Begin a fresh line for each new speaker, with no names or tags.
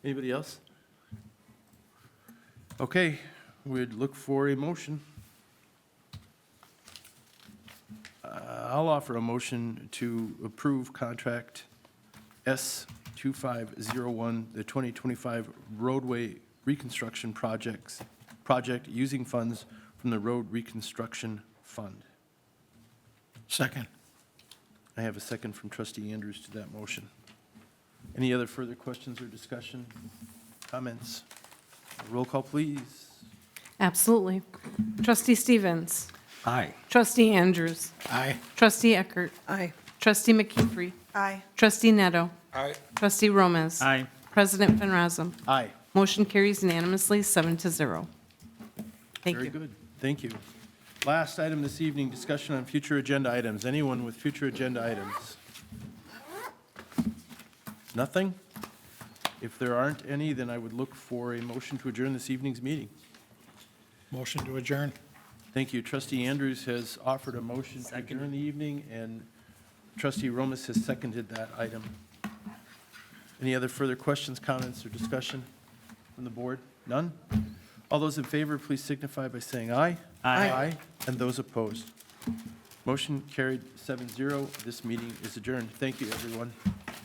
Anybody else? Okay, we'd look for a motion. Uh, I'll offer a motion to approve contract S 2501, the 2025 roadway reconstruction projects, project using funds from the Road Reconstruction Fund.
Second.
I have a second from trustee Andrews to that motion. Any other further questions or discussion, comments? Roll call, please.
Absolutely. Trustee Stevens.
Aye.
Trustee Andrews.
Aye.
Trustee Eckert.
Aye.
Trustee McKeefery.
Aye.
Trustee Neto.
Aye.
Trustee Gomez.
Aye.
President Van Rossum.
Aye.
Motion carries unanimously, seven to zero. Thank
Very
you.
good. Thank you. Last item this evening, discussion on future agenda items. Anyone with future agenda items? Nothing? If there aren't any, then I would look for a motion to adjourn this evening's meeting.
Motion to adjourn.
Thank you. Trustee Andrews has offered a motion to adjourn the evening, and trustee Romas has seconded that item. Any other further questions, comments, or discussion from the board? None? All those in favor, please signify by saying aye.
Aye.
And those opposed. Motion carried 7-0. This meeting is adjourned. Thank you, everyone.